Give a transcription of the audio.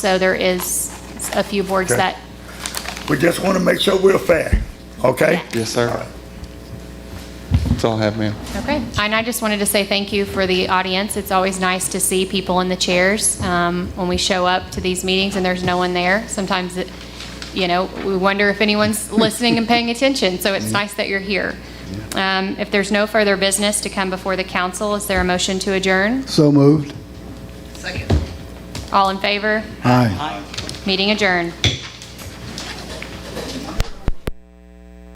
So there is a few boards Okay. that, We just want to make sure we're fair, okay? Yeah. Yes, sir. That's all I have, ma'am. okay. And I just wanted to say thank you for the audience. It's always nice to see people in the chairs um, when we show up to these meetings and there's no one there. Sometimes, it- you know, we wonder if anyone's listening and paying attention, so it's nice that you're here. Um, If there's no further business to come before the council, is there a motion to adjourn? So moved. All in favor? Aye. Meeting adjourned.